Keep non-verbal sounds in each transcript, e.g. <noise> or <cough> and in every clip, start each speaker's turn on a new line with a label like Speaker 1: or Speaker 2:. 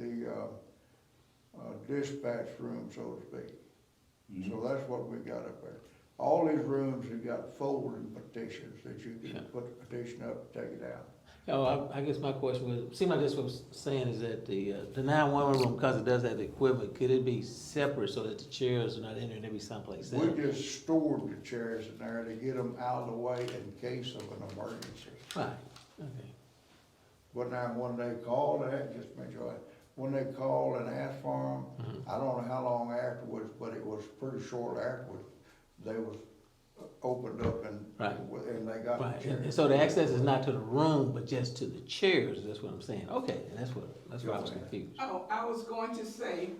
Speaker 1: uh, dispatch room, so to speak.
Speaker 2: Mm-hmm.
Speaker 1: So that's what we got up there. All these rooms have got folding petitions that you
Speaker 2: Yeah.
Speaker 1: can put the petition up, take it out.
Speaker 2: Oh, I, I guess my question was, seemed like that's what I'm saying is that the, uh, the nine-one-one room, because it does have the equipment, could it be separate so that the chairs are not entering every someplace
Speaker 1: We
Speaker 2: else?
Speaker 1: just stored the chairs in there to get them out of the way in case of an emergency.
Speaker 2: Right, okay.
Speaker 1: But now, when they called, that just made sure, when they called and asked for them, I don't know how long afterwards, but it was pretty short afterwards, they was opened up and,
Speaker 2: Right.
Speaker 1: and they got
Speaker 2: Right,
Speaker 1: the
Speaker 2: and and
Speaker 1: chairs.
Speaker 2: so the access is not to the room, but just to the chairs, that's what I'm saying, okay, and that's what, that's where I was confused.
Speaker 3: Oh, I was going to say,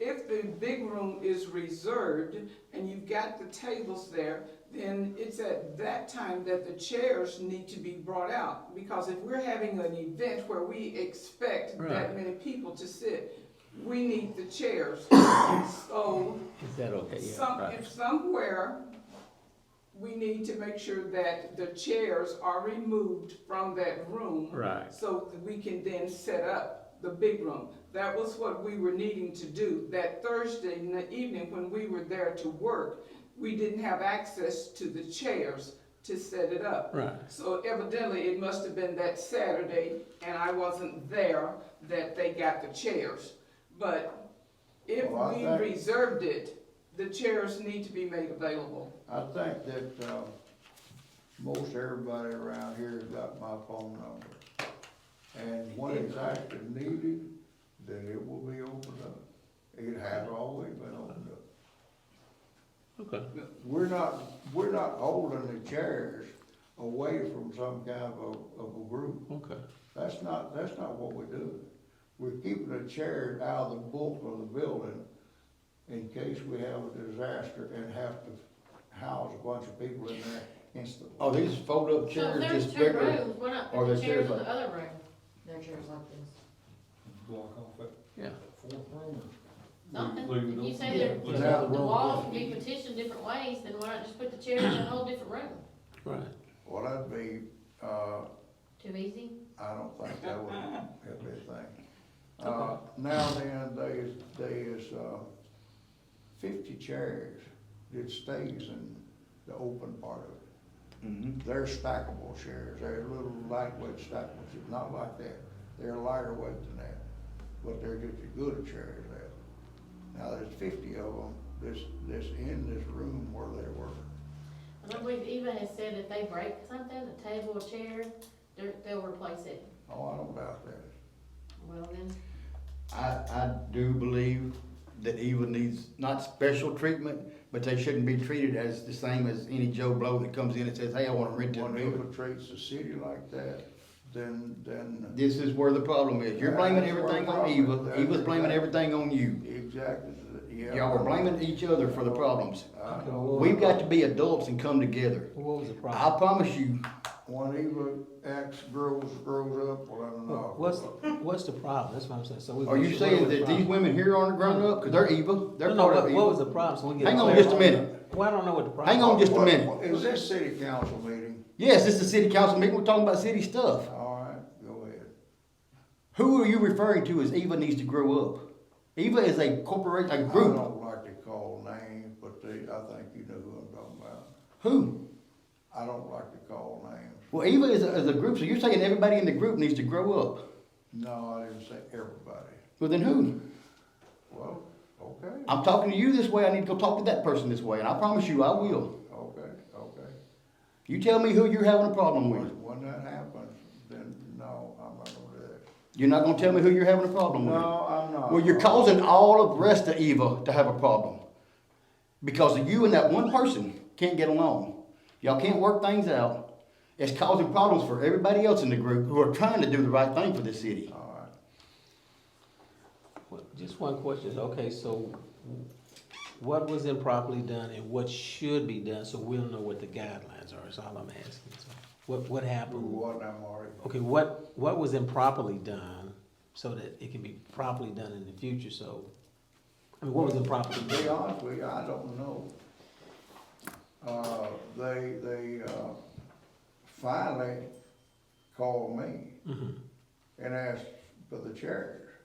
Speaker 3: if the big room is reserved and you've got the tables there, then it's at that time that the chairs need to be brought out. Because if we're having an event where we expect
Speaker 2: Right.
Speaker 3: that many people to sit, we need the
Speaker 2: <coughs>
Speaker 3: chairs. So,
Speaker 2: Is that okay, yeah,
Speaker 3: some,
Speaker 2: right,
Speaker 3: if somewhere, we need to make sure that the chairs are removed from that room.
Speaker 2: Right.
Speaker 3: So that we can then set up the big room. That was what we were needing to do. That Thursday in the evening, when we were there to work, we didn't have access to the chairs to set it up.
Speaker 2: right,
Speaker 3: So evidently, it must have been that Saturday, and I wasn't there, that they got the chairs. But if
Speaker 1: Well, I
Speaker 3: we
Speaker 1: think-
Speaker 3: reserved it, the chairs need to be made available.
Speaker 1: I think that, uh, most everybody around here has got my phone number. And when it's actually needed, then it will be opened up. It has always been opened up.
Speaker 2: okay,
Speaker 1: We're not, we're not holding the chairs away from some kind of, a- of a group.
Speaker 2: okay,
Speaker 1: That's not, that's not what we're doing. We're keeping the chairs out of the bulk of the building in case we have a disaster and have to house a bunch of people in there instantly.
Speaker 4: Oh, these fold-up
Speaker 5: So if
Speaker 4: chairs
Speaker 5: there's
Speaker 4: just
Speaker 5: two
Speaker 4: bigger.
Speaker 5: rooms, why not put the
Speaker 4: Or there's chairs
Speaker 5: chairs in
Speaker 4: like-
Speaker 5: the other room? There are chairs like this.
Speaker 6: block off that
Speaker 2: yeah.
Speaker 6: fourth room
Speaker 5: No,
Speaker 6: or? leave it
Speaker 5: if you
Speaker 6: open?
Speaker 5: say they're-
Speaker 2: Yeah,
Speaker 1: that
Speaker 5: the
Speaker 2: room,
Speaker 5: walls can be petitioned different ways, then why not just put the chairs in a whole different room?
Speaker 2: Right,
Speaker 1: Well, that'd be, uh,
Speaker 5: Too easy?
Speaker 1: I don't think that would help anything. Uh, now then, there is, there is, uh, fifty chairs that stays in the open part of it.
Speaker 4: Mhm.
Speaker 1: They're stackable chairs, they're little lightweight stackable, chairs. not like that, they're lighter weight than that, but they're just as good a chair as that. Now, there's fifty of them, this, this, in this room where they were.
Speaker 5: And I believe Eva has said if they break something, a table, a chair, they're, they'll replace it.
Speaker 1: Oh, I don't doubt that.
Speaker 5: Well, then,
Speaker 4: I, I do believe that Eva needs not special treatment, but they shouldn't be treated as the same as any Joe Blow that comes in and says, hey, I wanna rent this
Speaker 1: When
Speaker 4: building.
Speaker 1: infiltrates the city like that, then, then
Speaker 4: This is where the problem is. You're blaming everything on Eva. Eva's blaming everything on you.
Speaker 1: exactly, yeah.
Speaker 4: Y'all are blaming each other for the problems.
Speaker 1: I know.
Speaker 4: We've got to be adults and come together.
Speaker 2: what was the problem?
Speaker 4: I promise you,
Speaker 1: When Eva acts, grows, grows up, well, I don't know.
Speaker 2: What's, what's the problem, that's what I'm saying, so we.
Speaker 4: are
Speaker 2: what
Speaker 4: you
Speaker 2: was
Speaker 4: saying
Speaker 2: the
Speaker 4: that these
Speaker 2: problem?
Speaker 4: women here aren't grown up? Cause they're Eva. They're
Speaker 2: No, no,
Speaker 4: part of
Speaker 2: what, what was
Speaker 4: Eva.
Speaker 2: the problem? So we can get
Speaker 4: Hang on
Speaker 2: clarity.
Speaker 4: just a minute.
Speaker 2: Well, I don't know what the problem.
Speaker 4: Hang on just a
Speaker 1: What-
Speaker 4: minute.
Speaker 1: what- Is this city council meeting?
Speaker 4: Yes, this is a city council meeting. We're talking about city stuff.
Speaker 1: All right, go ahead.
Speaker 4: Who are you referring to as Eva needs to grow up? Eva is a corporate, a
Speaker 1: I
Speaker 4: group.
Speaker 1: don't like to call names, but they, I think you know who I'm talking about.
Speaker 4: Who?
Speaker 1: I don't like to call names.
Speaker 4: Well, Eva is a, is a group, so you're saying everybody in the group needs to grow up.
Speaker 1: No, I didn't say everybody.
Speaker 4: Well, then who?
Speaker 1: Well, okay,
Speaker 4: I'm talking to you this way. I need to go talk to that person this way, and I promise you, I will.
Speaker 1: okay, okay.
Speaker 4: You tell me who you're having a problem with.
Speaker 1: When when that happens, then no, I'm not gonna do that.
Speaker 4: You're not going to tell me who you're having a problem with.
Speaker 1: No, I'm not.
Speaker 4: Well, you're causing all of the rest of Eva to have a problem. Because of you and that one person can't get along. Y'all can't work things out. It's causing problems for everybody else in the group who are trying to do the right thing for the city.
Speaker 1: All right.
Speaker 2: Well, Just one question, okay, so what was improperly done and what should be done, so we'll know what the guidelines are, is all I'm asking. So What, what
Speaker 1: Who,
Speaker 2: happened?
Speaker 1: what, I'm already,
Speaker 2: Okay, what, what was improperly done, so that it can be properly done in the future, so, I mean, what was improperly
Speaker 1: to be
Speaker 2: done?
Speaker 1: honest with you, I don't know. Uh, they, they, uh, finally called me and asked for the chair.